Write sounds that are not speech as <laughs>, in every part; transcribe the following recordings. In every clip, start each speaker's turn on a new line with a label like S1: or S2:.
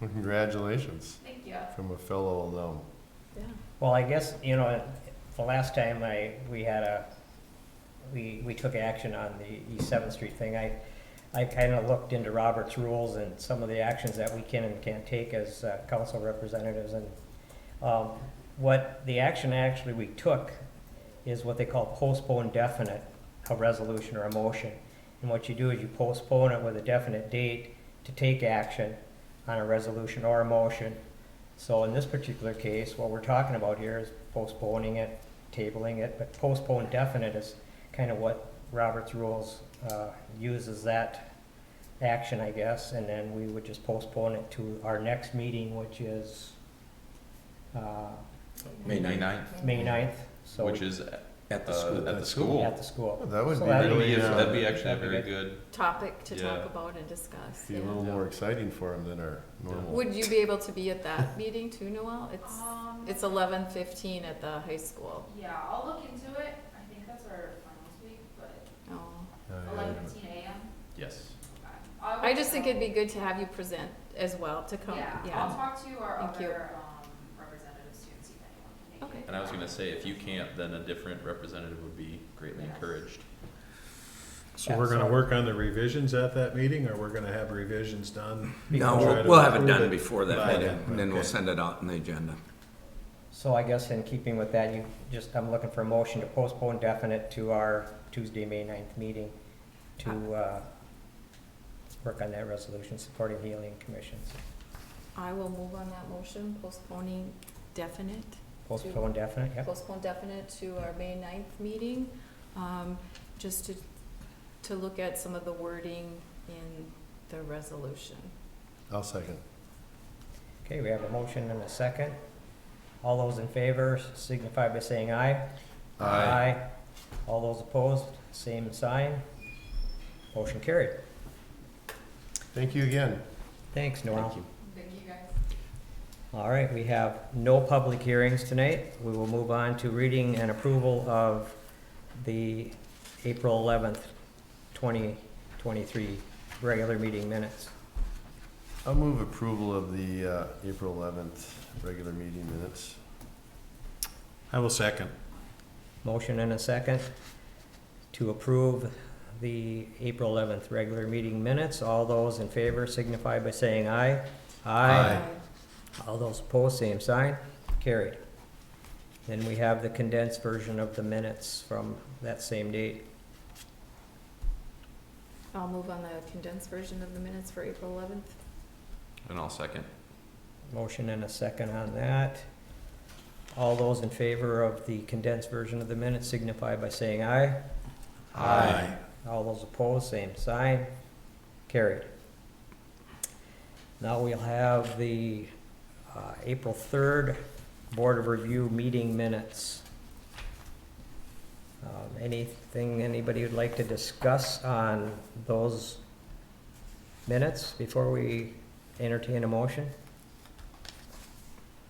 S1: Well, Congratulations
S2: Thank you.
S1: from a fellow alum.
S2: Yeah.
S3: Well, I guess, you know, the last time I, we had a, we, we took action on the East Seventh Street thing, I, I kind of looked into Robert's rules and some of the actions that we can and can't take as uh, council representatives and, um, what the action actually we took is what they call postpone definite, a resolution or a motion. And what you do is you postpone it with a definite date to take action on a resolution or a motion. So in this particular case, what we're talking about here is postponing it, tabling it, but postpone definite is kind of what Robert's rules uh, uses that action, I guess, and then we would just postpone it to our next meeting, which is uh,
S4: May ninth,
S3: May 9th, so
S4: which is at
S1: At
S5: Uh,
S4: the school. At the school.
S3: at the school.
S1: Well, that would
S3: So
S1: be
S3: that'd
S4: That'd
S1: really,
S4: be,
S1: uh,
S4: that'd be actually a
S3: that'd be
S4: very
S3: good.
S4: good,
S2: Topic to
S4: Yeah.
S2: talk about and discuss.
S1: be a
S2: yeah.
S1: little more exciting for him than our normal.
S2: Would you be able to be at <laughs> that meeting too, Noel? It's,
S6: Um,
S2: it's eleven fifteen at the high school.
S6: yeah, I'll look into it. I think that's our finals week, but
S2: Oh.
S1: Uh,
S6: eleven fifteen AM.
S4: yes.
S6: Okay. I'll
S2: I
S6: look
S2: just think
S6: it up.
S2: it'd be good to have you present as well, to come,
S6: Yeah, I'll
S2: yeah.
S6: talk to our
S2: Thank you.
S6: other, um, representatives too and see if anyone can make it.
S2: Okay.
S4: And I was gonna say, if you can't, then a different representative would be greatly
S6: Yes.
S4: encouraged.
S7: So we're gonna work on the revisions at that meeting, or we're gonna have revisions done?
S5: No,
S7: Try
S5: we'll-
S7: to
S5: we'll have it
S7: approve
S5: done before that
S7: by
S5: meeting,
S7: then,
S5: and then we'll
S7: okay.
S5: send it out on the agenda.
S3: So I guess in keeping with that, you just, I'm looking for a motion to postpone definite to our Tuesday, May 9th meeting to uh, work on that resolution supporting healing commissions.
S2: I will move on that motion, postponing definite,
S3: Postpone definite, yep.
S2: postpone definite to our May 9th meeting. Um, just to, to look at some of the wording in the resolution.
S1: I'll second.
S3: Okay, we have a motion and a second. All those in favor signify by saying aye. All those opposed, same sign. Motion carried.
S1: Thank you again.
S3: Thanks, Noel.
S6: Thank you guys.
S3: All right, we have no public hearings tonight. We will move on to reading and approval of the April eleventh, twenty twenty-three regular meeting minutes.
S1: I'll move approval of the uh, April 11th regular meeting minutes.
S7: I will second.
S3: Motion and a second to approve the April eleventh regular meeting minutes. All those in favor signify by saying aye.
S1: Aye.
S3: All those opposed, same sign. Carried. Then we have the condensed version of the minutes from that same date.
S2: I'll move on the condensed version of the minutes for April 11th.
S4: And I'll second.
S3: Motion and a second on that. All those in favor of the condensed version of the minutes signify by saying aye. Aye. All those opposed, same sign. Carried. Now we'll have the uh, April 3rd Board of Review meeting minutes. Um, Anything anybody would like to discuss on those minutes before we entertain a motion?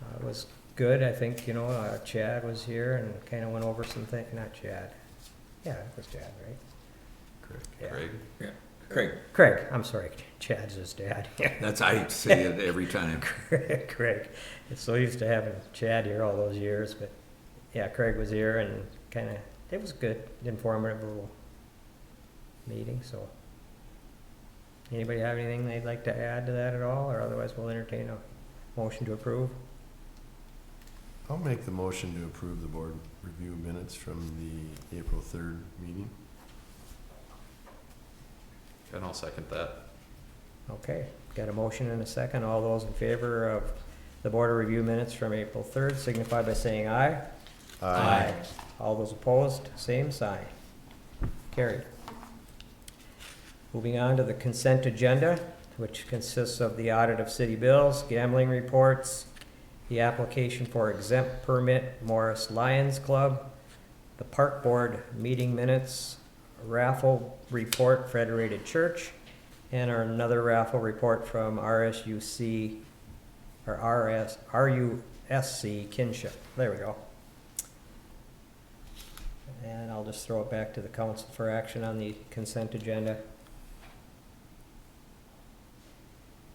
S3: Uh, It was good, I think, you know, uh, Chad was here and kind of went over some things, not Chad. Yeah, it was Chad, right?
S1: Correct.
S3: Yeah.
S4: Craig?
S5: Craig,
S3: Craig, I'm sorry, Chad's his dad. <laughs>
S5: that's, I say it every time.
S3: Craig, it's so used to having Chad here all those years, but yeah, Craig was here and kind of, it was good, informative little meeting, so. Anybody have anything they'd like to add to that at all, or otherwise we'll entertain a motion to approve?
S1: I'll make the motion to approve the board review minutes from the April 3rd meeting.
S4: And I'll second that.
S3: Okay, got a motion and a second. All those in favor of the Board of Review minutes from April 3rd signify by saying aye. All those opposed, same sign. Carried. Moving on to the consent agenda, which consists of the audit of city bills, gambling reports, the application for exempt permit Morris Lions Club, the park board meeting minutes, raffle report Federated Church, and our another raffle report from RSUC, or RS, RUSC Kinship. There we go. And I'll just throw it back to the council for action on the consent agenda.